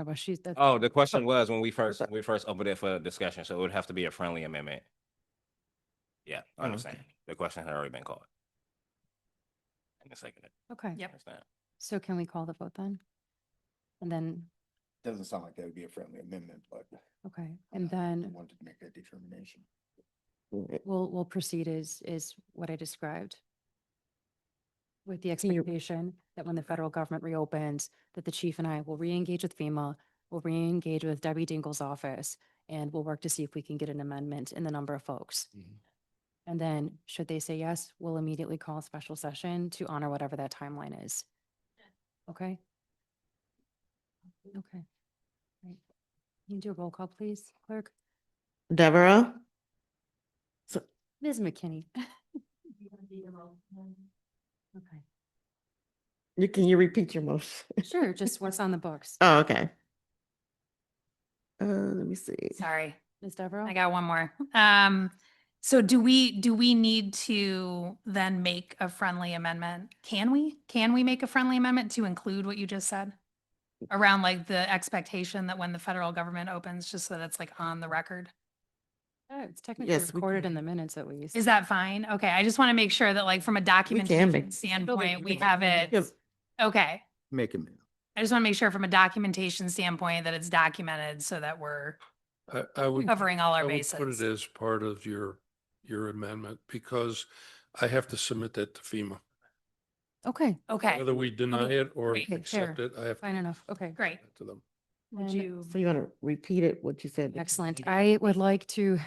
about. She's, that's, Oh, the question was when we first, we first opened it for discussion, so it would have to be a friendly amendment. Yeah, I Mm-hmm. Oh, understand. The question had already been called. And the second. okay. Yep. understand. So can we call the vote then? And then, Doesn't sound like that would be a friendly amendment, but. okay, and then Wanted to make that determination. we'll, we'll proceed is, is what I described. With the Can you- expectation that when the federal government reopens, that the chief and I will reengage with FEMA, we'll reengage with Debbie Dingle's office, and we'll work to see if we can get an amendment in the number of folks. Mhm. And then, should they say yes, we'll immediately call a special session to honor whatever that timeline is. Okay? Okay. Right. Can you do a roll call, please, clerk? Deborah, Ms. McKinney. Okay. you, can you repeat your motion? Sure, just what's on the books. Oh, okay. Uh, let me see. Sorry, Ms. Devereaux. I got one more. Um, so do we, do we need to then make a friendly amendment? Can we, can we make a friendly amendment to include what you just said? Around like the expectation that when the federal government opens, just so that it's like on the record? Oh, It's technically Yes, we recorded in can. the minutes at least. Is that fine? Okay, I just want to make sure that like from a documentation make- standpoint, we can- have it. Yes. Okay, Make a minute. I just want to make sure from a documentation standpoint that it's documented so that we're I, I would. covering all I our would Put it bases. as part of your, your amendment because I have to submit that to FEMA. Okay, Okay, Whether we deny it or Great. accept Fair. it, I have. to fine enough. Okay. great. submit To them. Would Then- you? So you want to repeat it, what you said? Excellent. I would like to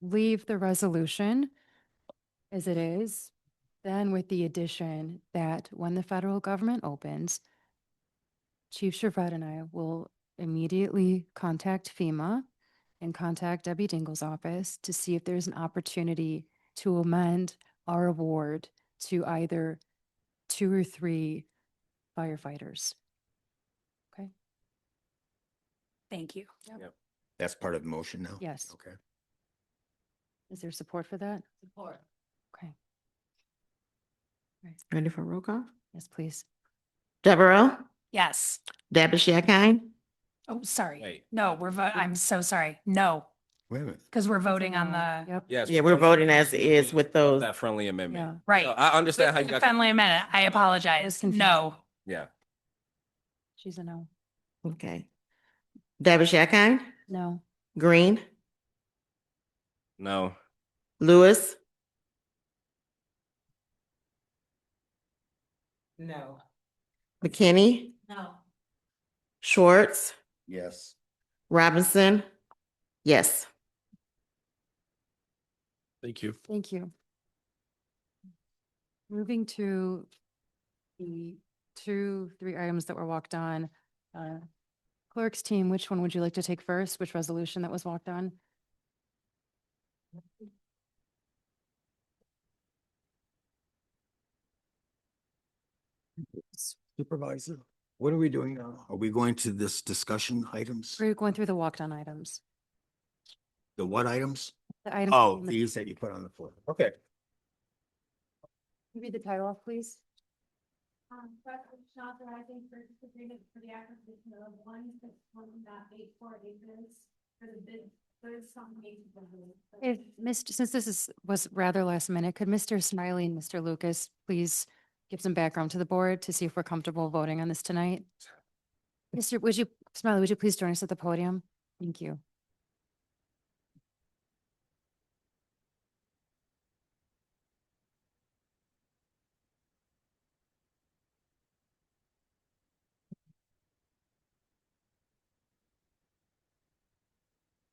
leave the resolution as it is, then with the addition that when the federal government opens, Chief Shavat and I will immediately contact FEMA and contact Debbie Dingle's office to see if there's an opportunity to amend our award to either two or three firefighters. Thank you. That's part of the motion now? Yes. Okay. Is there support for that? Support. Okay, Ready for roll call? yes, please. Deborah, Yes. Dabish Yakine, Oh, sorry. Wait. uh, No, we're, vo- I'm so sorry. No, Wait a minute. because we're It's a voting on no. the, Yep. Yes. Yeah, we're voting as is with those. That friendly Yeah. amendment. right. No, I understand how you got. Friendly amendment. I apologize. confused. No. Yeah, She's a no. Okay. Dabish Yakine, No. Green, no, Lewis, No. McKinney, No. Schwartz, Yes. Robinson. Yes. Thank you. Thank you. Moving to the two, three items that were walked on. uh, Clerk's team, which one would you like to take first? Which resolution that was walked on? Supervisor, what are we doing now? Are we going to this discussion items? We're going through the walked on items. The what items? The items. Oh, on the- these that you put on the floor. Okay. Can you Read the title off, please. Um, resolution authorizing purchase agreement for the acquisition of one six one dot eight four acres for the bid, third some acres. If, Mr., since this is, was rather last minute, could Mr. Smiley and Mr. Lucas please give some background to the board to see if we're comfortable voting on this tonight? Mr., would you, Smiley, would you please join us at the podium? Thank you.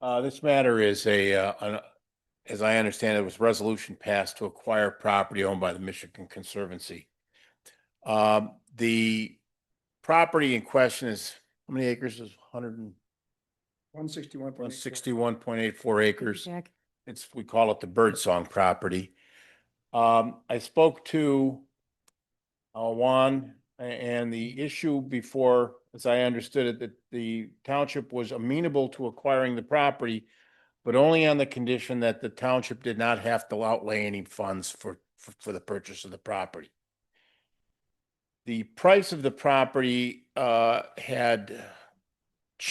Uh, this matter is a, uh, an- as I understand it, was resolution passed to acquire property owned by the Michigan Conservancy. Um, the property in question is, how many acres is hundred and One sixty-one one sixty-one point eight four acres? Jack, it's, we call it the Birdsong property. Um, I spoke to uh, Juan, a- and the issue before, as I understood it, that the township was amenable to acquiring the property, but only on the condition that the township did not have to outlay any funds for, for, for the purchase of the property. The price of the property, uh, had